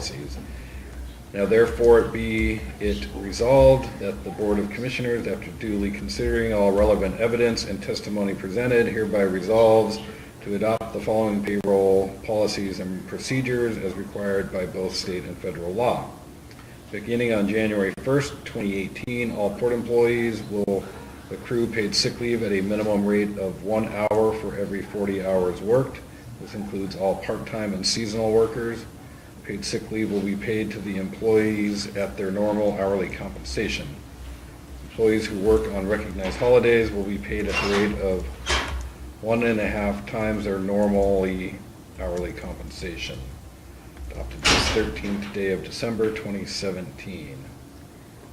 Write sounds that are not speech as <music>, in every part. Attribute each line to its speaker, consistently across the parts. Speaker 1: Policies. Now therefore it be it resolved that the Board of Commissioners, after duly considering all relevant evidence and testimony presented, hereby resolves to adopt the following payroll policies and procedures as required by both state and federal law. Beginning on January 1st, 2018, all port employees will accrue paid sick leave at a minimum rate of one hour for every 40 hours worked. This includes all part-time and seasonal workers. Paid sick leave will be paid to the employees at their normal hourly compensation. Employees who work on recognized holidays will be paid at the rate of one and a half times their normally hourly compensation. Adopted this 13th day of December 2017.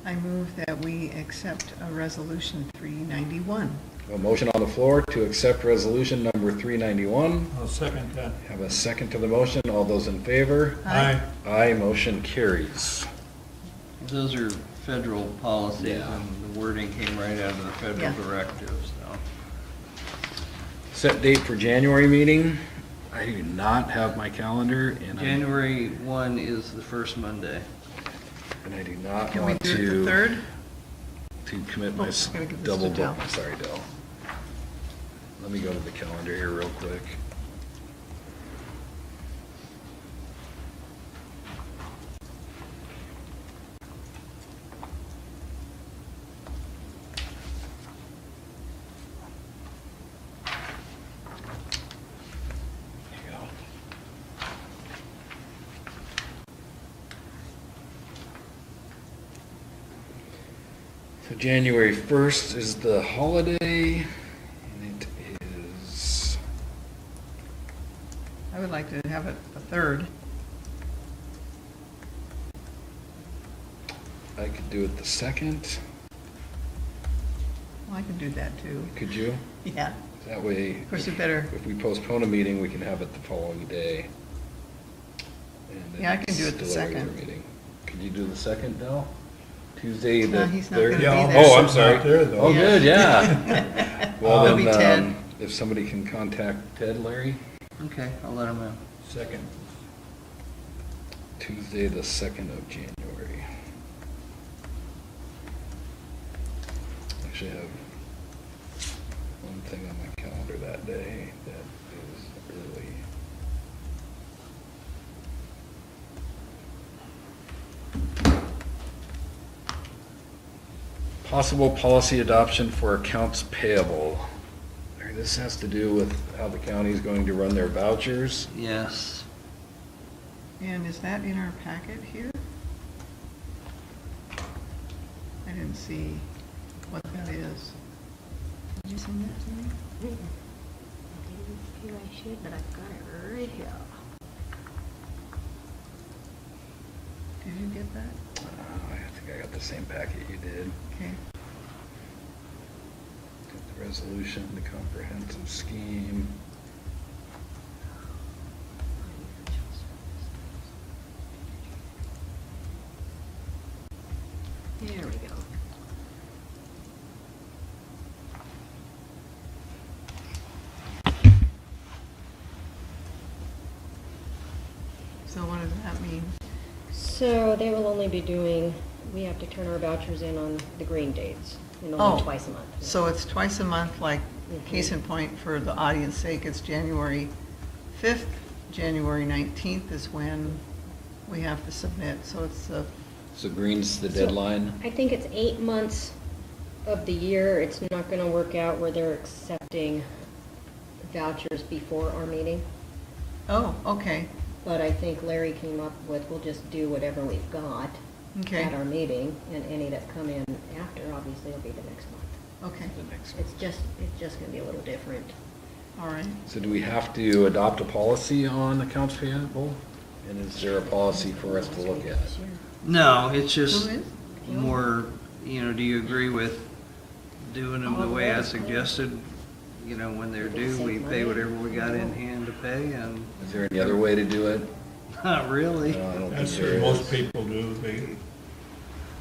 Speaker 2: I move that we accept uh, Resolution 391.
Speaker 1: A motion on the floor to accept resolution number 391.
Speaker 3: I'll second that.
Speaker 1: Have a second to the motion. All those in favor?
Speaker 2: Aye.
Speaker 1: Aye, motion carries.
Speaker 4: Those are federal policies,
Speaker 1: Yeah.
Speaker 4: and the wording came right out of the
Speaker 2: Yeah.
Speaker 4: federal directives, so.
Speaker 1: Set date for January meeting. I do not have my calendar and I,
Speaker 4: January 1 is the first Monday.
Speaker 1: and I do not
Speaker 2: Can we
Speaker 1: want
Speaker 2: do it the
Speaker 1: to,
Speaker 2: 3rd?
Speaker 1: to commit
Speaker 2: Oh,
Speaker 1: my s-
Speaker 2: gotta give this
Speaker 1: double
Speaker 2: to Dell.
Speaker 1: book. Sorry, Dell. Let me go to the calendar here real quick. There you go. So January 1st is the holiday, and it is,
Speaker 2: I would like to have it the 3rd.
Speaker 1: I could do it the 2nd,
Speaker 2: Well, I can do that, too. <laughs>
Speaker 1: could you?
Speaker 2: Yeah.
Speaker 1: That way,
Speaker 2: Of course, you better,
Speaker 1: if we postpone a meeting, we can have it the following day. And
Speaker 2: Yeah, I can do
Speaker 1: it's
Speaker 2: it the
Speaker 1: still a regular
Speaker 2: 2nd.
Speaker 1: meeting. Could you do the 2nd, Dell? Tuesday, the
Speaker 2: No, he's not gonna
Speaker 1: 3rd?
Speaker 2: be Yeah, there.
Speaker 1: Oh, I'm
Speaker 2: Not
Speaker 1: sorry.
Speaker 3: there, though.
Speaker 1: Oh, good, yeah.
Speaker 2: <laughs>
Speaker 1: <laughs> Well,
Speaker 2: It'll be
Speaker 1: then, um,
Speaker 2: Ted.
Speaker 1: if somebody can contact Ted, Larry,
Speaker 4: Okay, I'll let them know.
Speaker 3: Second.
Speaker 1: Tuesday, the 2nd of January. Actually, I have one thing on my calendar that day that is early. Possible policy adoption for accounts payable. All right, This has to do with how the county is going to run their vouchers.
Speaker 4: Yes,
Speaker 2: and is that in our packet here? I didn't see what that is. Did you send that to me?
Speaker 5: I feel I should, but I've got it right here.
Speaker 2: Did you get that?
Speaker 1: Uh, I think I got the same packet you did.
Speaker 2: Okay.
Speaker 1: Got The resolution, the comprehensive scheme.
Speaker 5: There we go.
Speaker 2: So what does that mean?
Speaker 5: So they will only be doing, we have to turn our vouchers in on the green dates, and
Speaker 2: Oh,
Speaker 5: only twice a month.
Speaker 2: So it's twice a month, like, case
Speaker 5: Mhm.
Speaker 2: in point, for the audience sake, it's January 5th, January 19th is when we have to submit, so it's the,
Speaker 1: So green's the
Speaker 5: So, I think it's eight months of the year, it's not gonna work out where they're accepting vouchers before our meeting.
Speaker 2: oh, okay,
Speaker 5: But I think Larry came up with, we'll just do whatever we've got
Speaker 2: okay,
Speaker 5: at our meeting, and any that come in after, obviously, will be the next month.
Speaker 2: okay,
Speaker 1: The next one.
Speaker 5: It's just, it's just gonna be a little different.
Speaker 2: all right.
Speaker 1: So do we have to adopt a policy on accounts payable? And is there a policy for us to look at?
Speaker 4: no, it's just
Speaker 2: Who is?
Speaker 4: more, you know, do you agree with doing them
Speaker 5: Oh,
Speaker 4: the way I suggested? You know, when they're due, we pay whatever we got in hand to pay, and <laughs>
Speaker 1: Is there any other way to do it?
Speaker 4: not really.
Speaker 1: No, I don't think
Speaker 3: That's
Speaker 1: there
Speaker 3: what most
Speaker 1: is.
Speaker 3: people do, they,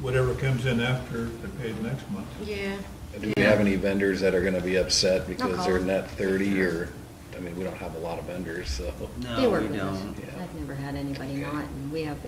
Speaker 3: whatever comes in after, they pay the next month.
Speaker 5: Yeah.
Speaker 1: Do we have any vendors that are gonna be upset because they're
Speaker 5: call.
Speaker 1: net thirty or, I mean, we don't have a lot of vendors, so.
Speaker 4: No,
Speaker 5: They work
Speaker 4: we
Speaker 5: with us.
Speaker 4: don't.
Speaker 1: Yeah.
Speaker 5: I've never had anybody
Speaker 1: Okay.
Speaker 5: not, and we have